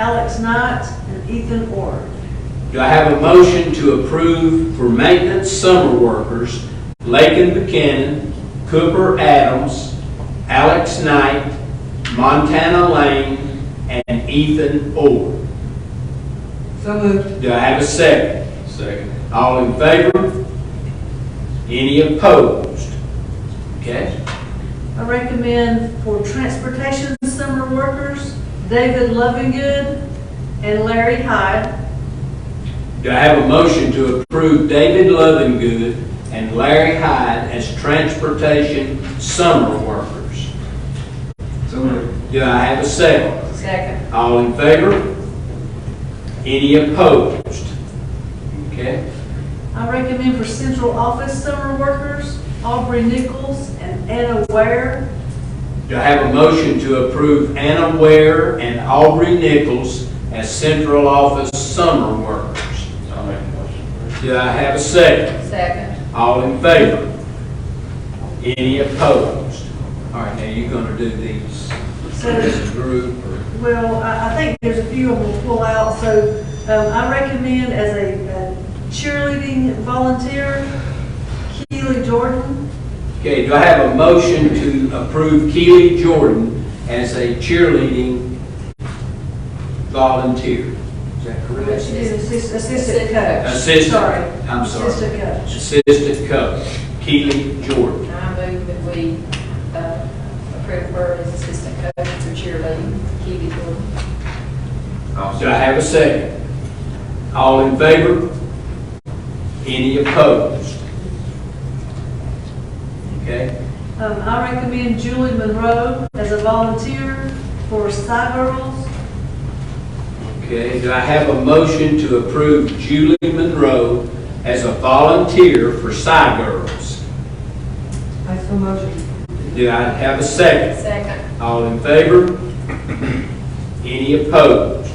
Alex Knight, and Ethan Ord. Do I have a motion to approve for maintenance summer workers, Lakin Buchanan, Cooper Adams, Alex Knight, Montana Lane, and Ethan Orr? So moved. Do I have a second? Second. All in favor? Any opposed? Okay, I recommend for transportation summer workers, David Lovingood and Larry Hyde. do I have a motion to approve David Lovingood and Larry Hyde as transportation summer workers? So moved. Do I have a second? Second. All in favor? Any opposed? Okay, I recommend for central office summer workers, Aubrey Nichols and Anna Ware. do I have a motion to approve Anna Ware and Aubrey Nichols as central office summer workers? I'll make a motion. Do I have a second? Second. All in favor? Any opposed? All right, now you're gonna do these, So, this group or? well, I, I think there's a few of them we'll pull out, so, um, I recommend as a uh, cheerleading volunteer, Keely Jordan. Okay, do I have a motion to approve Keely Jordan as a cheerleading volunteer? Is that correct? She's assist- assistant coach. Assistant. Sorry. I'm sorry. Assistant coach. Assistant coach, Keely Jordan. I move that we uh, approve her as assistant coach for cheerleading, Kiwi Jordan. I'll Do I have a second? All in favor? Any opposed? Okay, Um, I recommend Julie Monroe as a volunteer for Girls. okay. Do I have a motion to approve Julie Monroe as a volunteer for Cy Girls? I so motion. Do I have a second? Second. All in favor? Any opposed?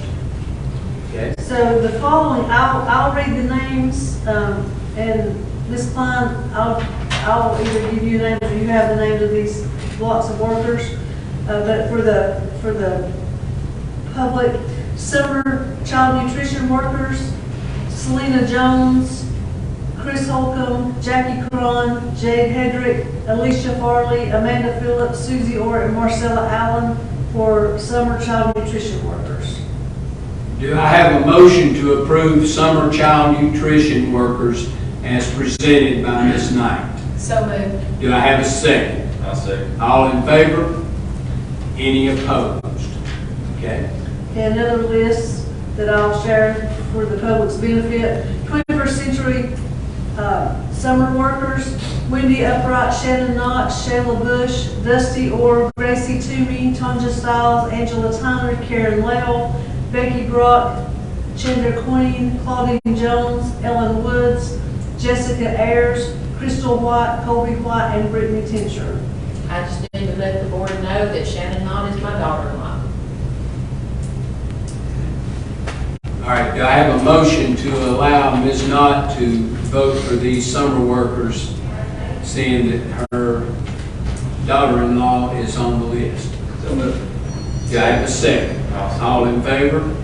Okay, So the following, I'll, I'll read the names, um, and Ms. Klein, I'll, I'll either give you names or you have the names of these lots of workers. Uh, but for the, for the public, summer child nutrition workers, Selena Jones, Chris Holcomb, Jackie Cron, Jade Hedrick, Alicia Farley, Amanda Phillips, Susie Orr, and Marcella Allen for summer child nutrition workers. do I have a motion to approve summer child nutrition workers as presented by Ms. Knight? So moved. Do I have a second? I'll second. All in favor? Any opposed? Okay, Okay, another list that I'll share for the public's benefit. 21st century uh, summer workers, Wendy Upright, Shannon Knott, Shayla Bush, Dusty Orr, Gracie Toomey, Tonja Styles, Angela Tyler, Karen Lell, Becky Brock, Chandra Queen, Claudine Jones, Ellen Woods, Jessica Ayers, Crystal White, Colby White, and Brittany Tincher. I just need to let the board know that Shannon Knott is my daughter-in-law. all right, do I have a motion to allow Ms. Knight to vote for these summer workers, seeing that her daughter-in-law is on the list? So moved. Do I have a second? I'll second. All in favor?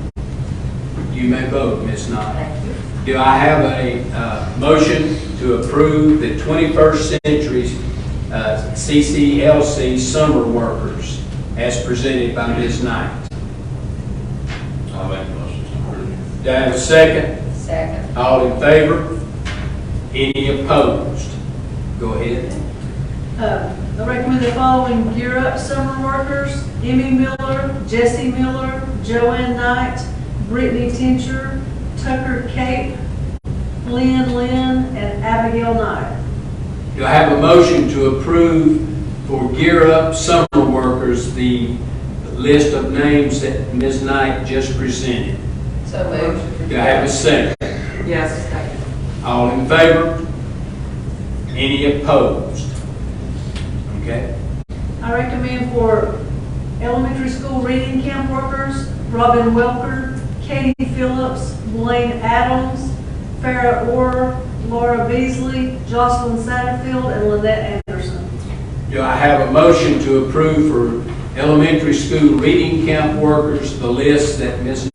You may vote, Ms. Knight. Thank you. Do I have a uh, motion to approve the 21st Century uh, CCLC Summer Workers as presented by Ms. Knight? I'll make a motion to approve. Do I have a second? Second. All in favor? Any opposed? Go ahead. Uh, I recommend the following Gear Up summer workers, Emmy Miller, Jesse Miller, Joanne Knight, Brittany Tincher, Tucker Cape, Lynn Lynn, and Abigail Knight. Do I have a motion to approve for Gear Up Summer Workers, the list of names that Ms. Knight just presented? So moved. Do I have a second? Yes. Second. All in favor? Any opposed? Okay, I recommend for elementary school reading camp workers, Robin Welker, Katie Phillips, Blaine Adams, Farah Orr, Laura Beasley, Jocelyn Satterfield, and Lynette Anderson. do I have a motion to approve for elementary school reading camp workers, the list that Ms.